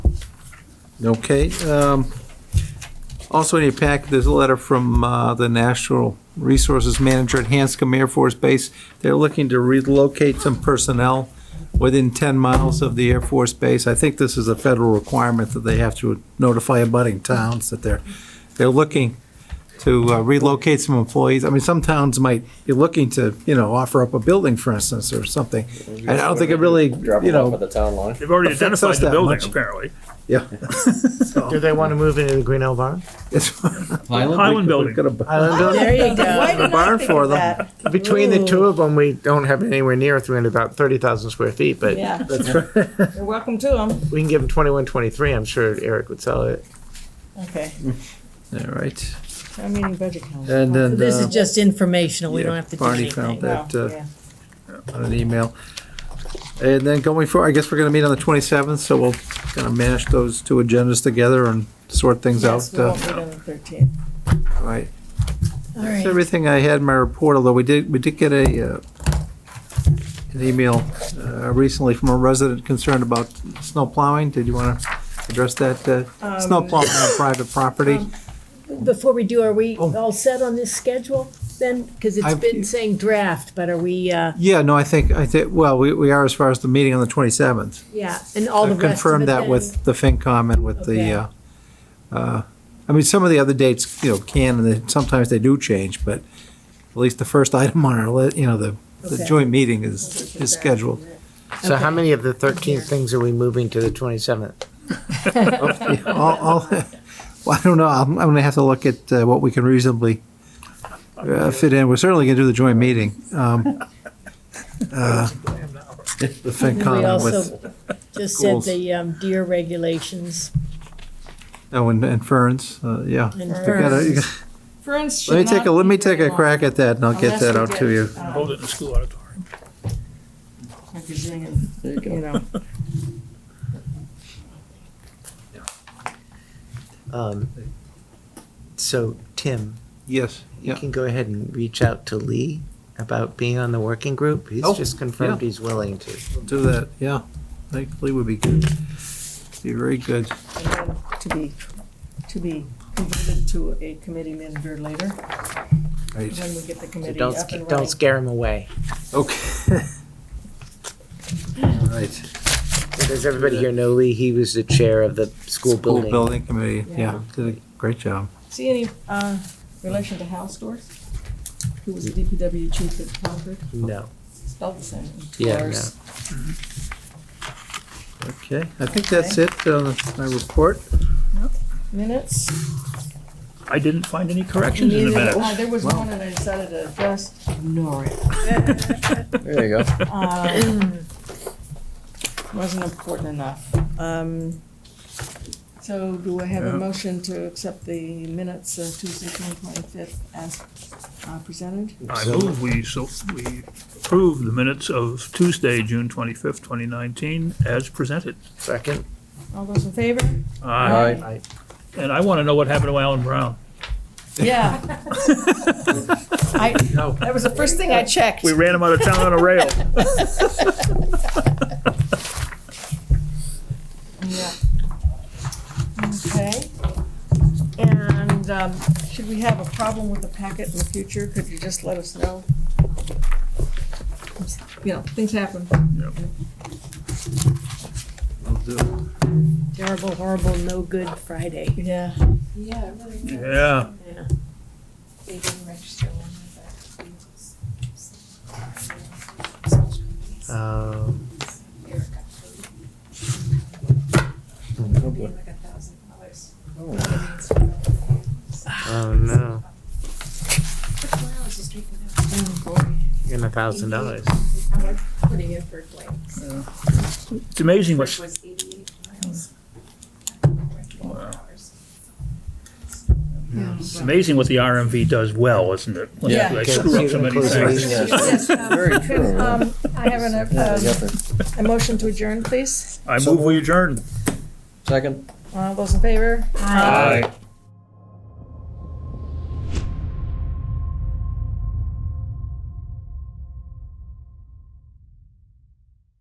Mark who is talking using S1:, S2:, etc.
S1: Okay. um, Also in your pack, there's a letter from uh, the National Resources Manager at Hanscom Air Force Base. They're looking to relocate some personnel within 10 miles of the Air Force Base. I think this is a federal requirement that they have to notify abutting towns that they're, they're looking to uh, relocate some employees. I mean, some towns might be looking to, you know, offer up a building, for instance, or something. And I don't think it really,
S2: Drop
S1: you
S2: it off
S1: know,
S2: at the town line.
S3: They've already
S1: Affects us
S3: identified the
S1: that
S3: building,
S1: much.
S3: apparently.
S1: yeah.
S4: Do they want to move into the Green Hill Barn?
S1: It's-
S3: Highland building.
S1: Got a-
S4: Island
S5: Oh,
S4: building?
S6: There you
S5: Why
S6: go.
S5: did I
S1: barn
S5: think
S1: for
S5: of
S1: them.
S5: that?
S4: Between the two of them, we don't have anywhere near 300, about 30,000 square feet, but
S5: Yeah. You're welcome to them.
S4: we can give them 21, 23. I'm sure Eric would sell it.
S5: Okay.
S1: All right.
S5: I mean, budget council.
S1: And then.
S6: This
S1: uh,
S6: is just informational, we
S1: yeah,
S6: don't have to do
S1: Barney found
S6: anything.
S1: that
S5: Wow,
S1: uh,
S5: yeah.
S1: on an email. And then going forward, I guess we're going to meet on the 27th, so we'll kind of mash those two agendas together and sort things out.
S5: Yes, we
S1: uh,
S5: won't meet on the 13th.
S1: All right.
S6: All
S1: That's
S6: right,
S1: everything I had in my report, although we did, we did get a, uh, an email uh, recently from a resident concerned about snow plowing. Did you want to address that? uh, Snow
S5: Um,
S1: plowing on private property?
S6: um, before we do, are we
S1: Oh.
S6: all set on this schedule then? Because it's
S1: I've-
S6: been saying draft, but are we, uh,
S1: Yeah, no, I think, I think, well, we, we are as far as the meeting on the 27th.
S6: yeah, and all the
S1: I've
S6: rest of
S1: confirmed
S6: it
S1: that
S6: then?
S1: with the FinCom and with the,
S6: Okay.
S1: uh, uh, I mean, some of the other dates, you know, can, and they- sometimes they do change, but at least the first item on our, li- you know, the, the
S6: Okay.
S1: joint meeting is, is scheduled.
S4: So how
S6: Okay.
S4: many of the 13 things are we moving to the 27th?
S1: Yeah, All, all, well, I don't know, I'm, I'm gonna have to look at uh, what we can reasonably uh, fit in. We're certainly gonna do the joint meeting. um, uh, The
S6: And We
S1: FinCom with,
S6: also just
S1: schools.
S6: said the um, deer regulations
S1: oh, and- and Ferns, uh, yeah.
S6: and
S1: You gotta- you
S6: ferns.
S1: gotta-
S5: Friends should
S1: Let me take
S5: not
S1: a, let
S5: be
S1: me take
S5: very
S1: a crack at that and I'll get
S5: Unless
S1: that
S5: we
S1: out
S5: get, uh,
S1: to you.
S5: long,
S3: Hold it in the school auditorium.
S5: um, like a zillion,
S2: There you
S5: You
S2: go.
S5: know,
S4: Um, So, Tim,
S1: Yes,
S4: you
S1: yeah.
S4: can go ahead and reach out to Lee about being on the working group. He's
S1: Oh,
S4: just confirmed he's willing to.
S1: Do that, yeah. Thankfully would be good. Be very good.
S5: and then to be, to be converted to a committee member later,
S1: Right,
S5: when we get
S4: So
S5: the committee
S4: don't,
S5: up
S4: sca-
S5: and
S4: don't
S5: running.
S4: scare him away.
S1: okay. All right.
S4: So Does everybody here know Lee? He was the chair of the school
S1: School
S4: building.
S1: building committee, yeah, did a great job.
S5: See any, uh, relation to Hal Storrs? Who was the DPW chief at Concord?
S4: No.
S5: Spelled the same.
S4: Yeah,
S5: Storrs.
S1: Okay, I think that's it, uh, my report.
S5: Minutes?
S3: I didn't find any corrections in the
S5: Neither-
S3: minutes.
S5: uh, There was one and I decided to just ignore it.
S2: There you go.
S6: uh,
S5: Um, Wasn't important enough. Um, So do I have a motion to accept the minutes of Tuesday, June twenty-fifth as uh, presented?
S3: I move we, so, we approve the minutes of Tuesday, June twenty-fifth, twenty nineteen, as presented.
S4: Second?
S5: All those in favor?
S3: Aye.
S2: Aye.
S3: And I want to know what happened to Alan Brown.
S5: Yeah. I, that was the first thing I checked.
S3: We ran him out of town on a rail.
S5: Yeah. Okay. And um, should we have a problem with the packet in the future, could you just let us know? You know, things happen.
S1: I'll do it.
S6: Terrible, horrible, no good Friday.
S5: Yeah.
S7: Yeah, it really is.
S3: Yeah,
S7: They didn't register one of the vehicles. So-
S4: Um,
S7: Eric got paid. Paid like a thousand dollars.
S4: oh, no.
S7: Took four hours just drinking
S4: And a thousand dollars.
S7: I'm like putting in for blanks.
S3: it's amazing
S7: First
S3: what's,
S7: was eighty-eight miles. Four hours.
S3: it's amazing what the RMV does well, isn't it? When
S2: Yeah.
S3: They screw up so many things.
S2: Yes, Very true. yeah.
S5: Um, I have an,
S2: Yeah, you got
S5: um,
S2: the-
S5: a motion to adjourn, please.
S3: I move we adjourn.
S2: Second?
S5: All those in favor?
S6: Aye.
S3: Aye.